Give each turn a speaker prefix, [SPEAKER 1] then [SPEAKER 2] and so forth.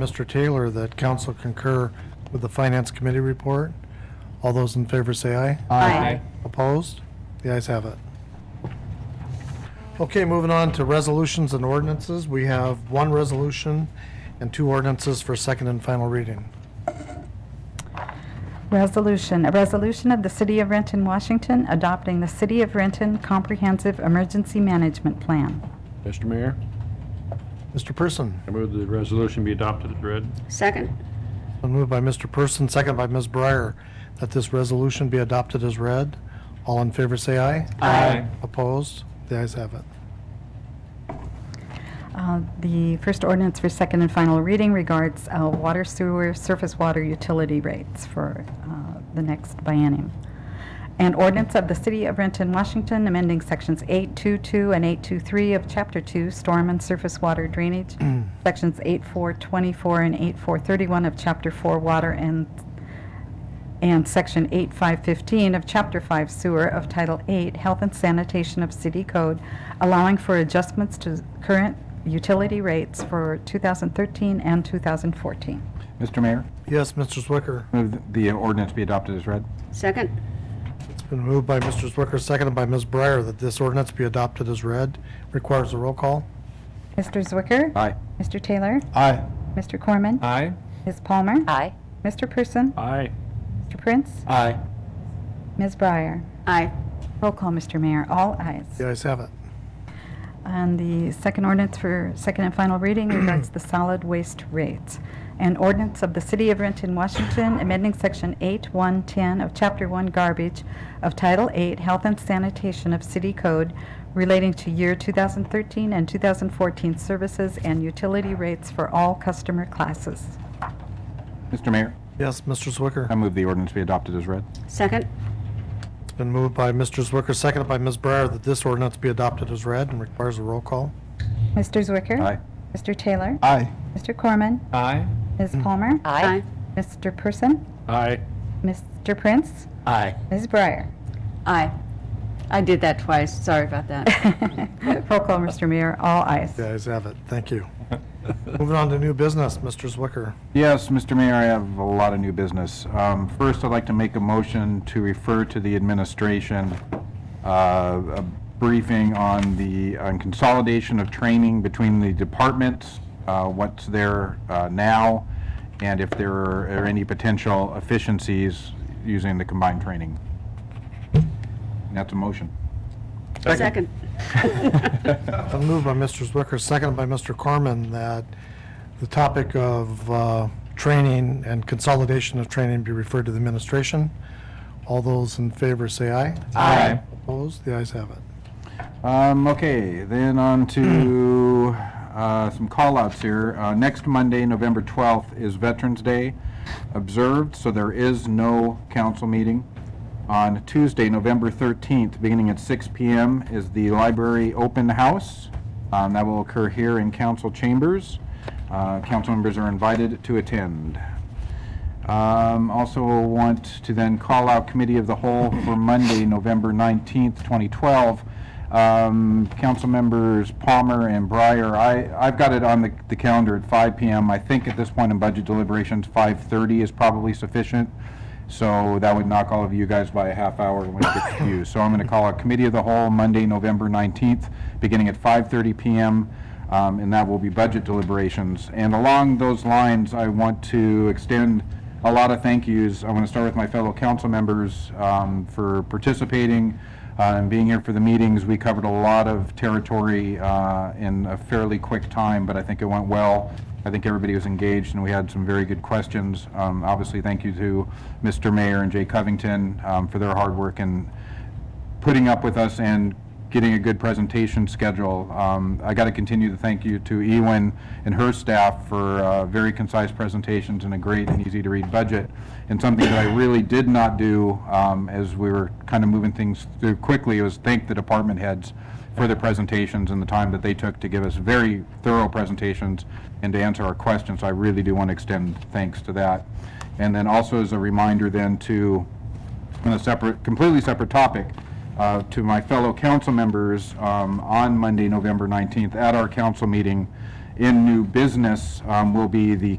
[SPEAKER 1] Mr. Taylor that council concur with the Finance Committee report. All those in favor say aye.
[SPEAKER 2] Aye.
[SPEAKER 1] Opposed? The ayes have it. Okay, moving on to resolutions and ordinances. We have one resolution and two ordinances for second and final reading.
[SPEAKER 2] Resolution, a resolution of the City of Renton, Washington, adopting the City of Renton Comprehensive Emergency Management Plan.
[SPEAKER 3] Mr. Mayor,
[SPEAKER 1] Mr. Person,
[SPEAKER 3] I move the resolution be adopted as read.
[SPEAKER 4] Second.
[SPEAKER 1] been moved by Mr. Person, second by Ms. Breyer, that this resolution be adopted as read. All in favor say aye.
[SPEAKER 3] Aye.
[SPEAKER 1] Opposed? The ayes have it.
[SPEAKER 2] Uh, The first ordinance for second and final reading regards uh, water sewer, surface water utility rates for uh, the next biennium. An ordinance of the City of Renton, Washington, amending Sections 822 and 823 of Chapter 2, Storm and Surface Water Drainage, Sections 8424 and 8431 of Chapter 4, Water and, and Section 8515 of Chapter 5, Sewer of Title 8, Health and Sanitation of City Code, allowing for adjustments to current utility rates for 2013 and 2014.
[SPEAKER 5] Mr. Mayor,
[SPEAKER 1] Yes, Mr. Zwicker.
[SPEAKER 5] move th- the ordinance be adopted as read.
[SPEAKER 4] Second.
[SPEAKER 1] It's been moved by Mr. Zwicker, seconded by Ms. Breyer, that this ordinance be adopted as read. Requires a roll call.
[SPEAKER 2] Mr. Zwicker?
[SPEAKER 5] Aye.
[SPEAKER 2] Mr. Taylor?
[SPEAKER 5] Aye.
[SPEAKER 2] Mr. Corman?
[SPEAKER 3] Aye.
[SPEAKER 2] Ms. Palmer?
[SPEAKER 6] Aye.
[SPEAKER 2] Mr. Person?
[SPEAKER 3] Aye.
[SPEAKER 2] Mr. Prince?
[SPEAKER 5] Aye.
[SPEAKER 2] Ms. Breyer?
[SPEAKER 4] Aye.
[SPEAKER 2] Roll call, Mr. Mayor. All ayes.
[SPEAKER 1] The ayes have it.
[SPEAKER 2] And the second ordinance for second and final reading regards the solid waste rates. An ordinance of the City of Renton, Washington, amending Section 8110 of Chapter 1 Garbage of Title 8 Health and Sanitation of City Code relating to year 2013 and 2014 services and utility rates for all customer classes.
[SPEAKER 5] Mr. Mayor,
[SPEAKER 1] Yes, Mr.
[SPEAKER 5] I
[SPEAKER 1] Zwicker.
[SPEAKER 5] move the ordinance be adopted as read.
[SPEAKER 4] Second.
[SPEAKER 1] It's been moved by Mr. Zwicker, seconded by Ms. Breyer, that this ordinance be adopted as read and requires a roll call.
[SPEAKER 2] Mr. Zwicker?
[SPEAKER 5] Aye.
[SPEAKER 2] Mr. Taylor?
[SPEAKER 5] Aye.
[SPEAKER 2] Mr. Corman?
[SPEAKER 3] Aye.
[SPEAKER 2] Ms. Palmer?
[SPEAKER 6] Aye.
[SPEAKER 2] Mr. Person?
[SPEAKER 3] Aye.
[SPEAKER 2] Mr. Prince?
[SPEAKER 3] Aye.
[SPEAKER 2] Ms. Breyer?
[SPEAKER 4] Aye. I did that twice. Sorry about that.
[SPEAKER 2] Roll call, Mr. Mayor, all ayes.
[SPEAKER 1] The ayes have it. Thank you. Moving on to new business, Mr. Zwicker.
[SPEAKER 5] Yes, Mr. Mayor, I have a lot of new business. Um, First, I'd like to make a motion to refer to the administration uh, a briefing on the on consolidation of training between the departments, uh, what's there uh, now, and if there are any potential efficiencies using the combined training. And That's a motion.
[SPEAKER 4] Second.
[SPEAKER 1] It's been moved by Mr. Zwicker, seconded by Mr. Corman, that the topic of uh, training and consolidation of training be referred to the administration. All those in favor say aye.
[SPEAKER 5] Aye.
[SPEAKER 1] Opposed? The ayes have it.
[SPEAKER 5] Um, okay, then on to uh, some call-outs here. Uh, next Monday, November 12th, is Veterans Day observed, so there is no council meeting. On Tuesday, November 13th, beginning at 6 p.m., is the library open house. Um, that will occur here in council chambers. Uh, council members are invited to attend. Um, Also want to then call out Committee of the Whole for Monday, November 19th, 2012. Um, Council members Palmer and Breyer, I, I've got it on the, the calendar at 5 PM. I think at this point in budget deliberations, 5:30 is probably sufficient. So that would knock all of you guys by a half hour when it gets to you. So I'm going to call a committee of the whole Monday, November 19th, beginning at 5:30 PM, um, and that will be budget deliberations. And along those lines, I want to extend a lot of thank yous. I want to start with my fellow council members um, for participating uh, and being here for the meetings. We covered a lot of territory uh, in a fairly quick time, but I think it went well. I think everybody was engaged, and we had some very good questions. Um, Obviously, thank you to Mr. Mayor and Jay Covington um, for their hard work and putting up with us and getting a good presentation schedule. Um, I got to continue to thank you to Ewen and her staff for uh, very concise presentations and a great and easy-to-read budget. And something that I really did not do um, as we were kind of moving things through quickly was thank the department heads for their presentations and the time that they took to give us very thorough presentations and to answer our questions. I really do want to extend thanks to that. And then also as a reminder then to on a separate, completely separate topic, uh, to my fellow council members um, on Monday, November 19th, at our council meeting in new business um, will be the